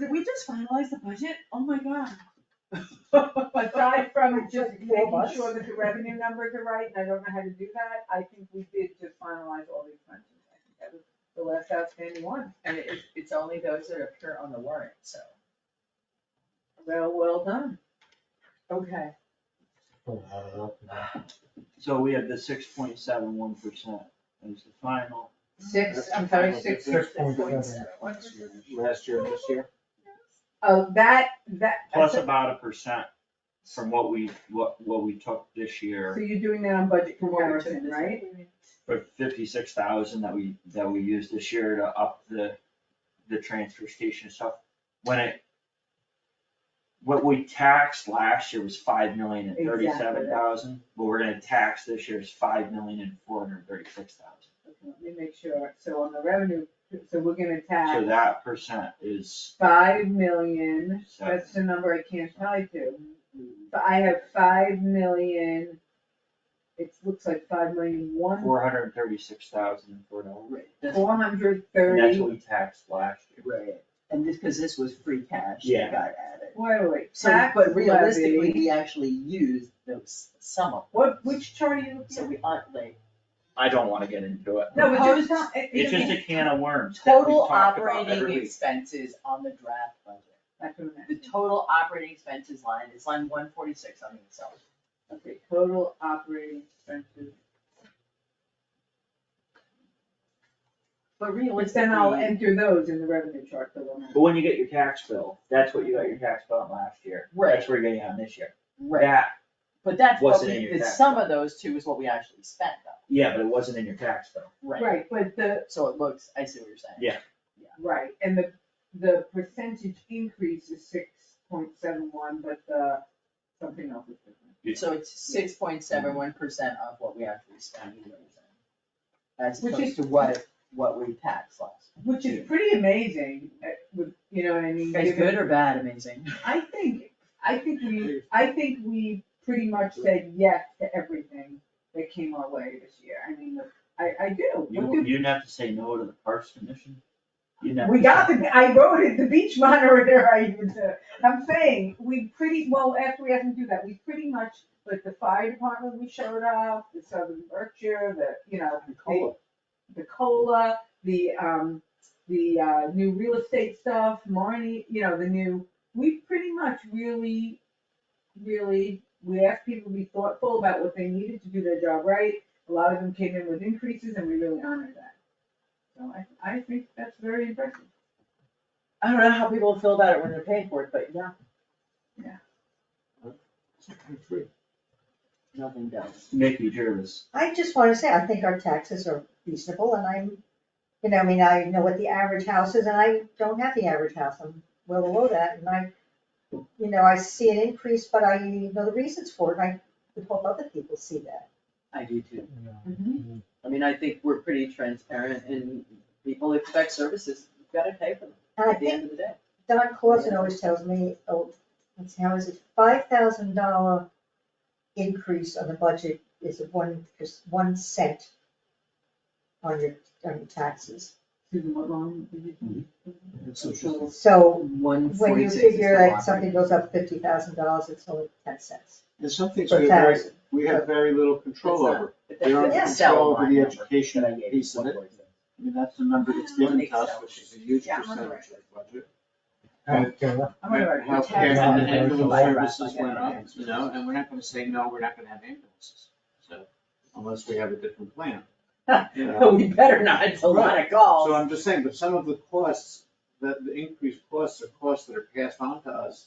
just finalize the budget? Oh my god. Aside from just Four making months. sure that the revenue numbers are right, and I don't know how to do that, I think we did just finalize all the expenses. I think that was The last outstanding one, And it's, it's only those that appear on the warrant, so. well, well done. Okay. So we have the six point seven one percent as the final. Six, I'm sorry, six. Six point seven. Last year, this year. Oh, that, that. Plus about a percent from what we, what, what we took this So year, you're doing that on budget comparison, right? for fifty-six thousand that we, that we used this year to up the, the transfer station stuff. When it, what we taxed last year was five million and thirty-seven thousand, but we're gonna tax this year is five million and four hundred and thirty-six thousand. Okay, Let me make sure, so on the revenue, so we're gonna So tax that percent is five million, seven. that's the number I can't tie to. But I have five million, it looks like five million one, Four hundred and thirty-six thousand and four dollars. four hundred And thirty. that's what we taxed last year. Right, and this, because this was free cash Yeah. that got added. Wait, wait, wait, So, tax but realistically, levy. we actually used those, some of What, which chart are you them, so looking we aren't like. I don't wanna get into it. at? No, but Proposed- just not, it, It's just it, a can of worms that we Total talk about every operating week. expenses on the draft budget. that's what I The meant. total operating expenses line is line one forty-six on the Excel. Okay, total operating expenses. But Which realistically. then I'll enter those in the revenue chart, the one. But when you get your tax bill, that's what you got your tax bill on last year. That's where you're getting on this year. Right, That, but that's what Wasn't in we, your the tax sum of those two is what we actually spent though, yeah, but it wasn't in your tax bill. right? Right, but the, So it looks, I see what you're saying. Yeah. right, and the, the percentage increase is six point seven one, but the, something else is different. Yeah. So it's six point seven one percent of what we actually spent. is what you're saying. As Which opposed to what, what we taxed last. Which is pretty amazing, uh, with, you know what I mean? Guys, given- good or bad, amazing. I think, I think we, I think we pretty much said yes to everything that came our way this year. I mean, I, I do. You, you didn't have to say no to the Parks Commission. You didn't have We to got say- the, I wrote it, the beach monitor, I, even said. I'm saying, we pretty, well, after we had to do that, we pretty much, like, the fire department, we showed up, the Southern Berkshire, the, you know, Cola. the cola, the um, the uh, new real estate stuff, Marnie, you know, the new, we pretty much really, really, we asked people to be thoughtful about what they needed to do their job right. A lot of them came in with increases and we really honored that. So I, I think that's very impressive. I don't know how people feel about it when they're paying for it, but yeah, nothing does. Mickey Jervis. I just wanna say, I think our taxes are reasonable and I'm, you know, I mean, I know what the average house is and I don't have the average house, I'm well below that and I, you know, I see an increase, but I know the reasons for it and I would hope other people see that. I do too. I mean, I think we're pretty transparent and people expect services, you've gotta pay for them And I at the think end of the day. Don Clausen always tells me, oh, let's see, how is it, five thousand dollar increase on the budget is one, is one cent on your, on your taxes. Susan, what long did you? So One when you forty-six is figure the that something lottery. goes up fifty thousand dollars, it's only ten cents. There's some things Per we have very, thousand. we have very little It's control not- over. but We don't that's have the cell control over line the number education that I gave, piece of it. 146. I mean, that's the number that's given to us, which is a huge Yeah, I'm on percentage the of the right budget. I'm on the right Health track. care and Yeah. ambulance Yeah. services Yeah. went up, you know, and we're not gonna say, no, we're not gonna have ambulances, so, unless we have a different plan. You know, We better not, it's a lot of calls. So I'm just saying, but some of the costs, that the increased costs are costs that are passed on to us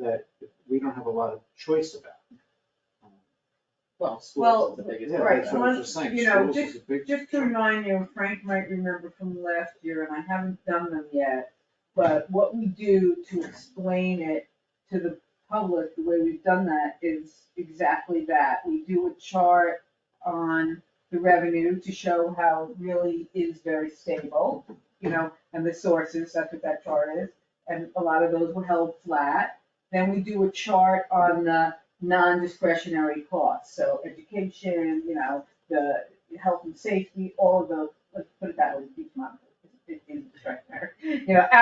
that we don't have a lot of choice about. Well, Well, schools is the biggest. Yeah, right, that's so what I was one- just saying, you know, schools is a big Just to chunk. remind you, and Frank might remember from last year, and I haven't done them yet, but what we do to explain it to the public, the way we've done that is exactly that. We do a chart on the revenue to show how it really is very stable, you know, and the sources, that's what that chart is. And a lot of those were held flat. Then we do a chart on the non-discretionary costs, so education, you know, the health and safety, all of those, let's put it that way, beach monitor, it is discretionary. You know,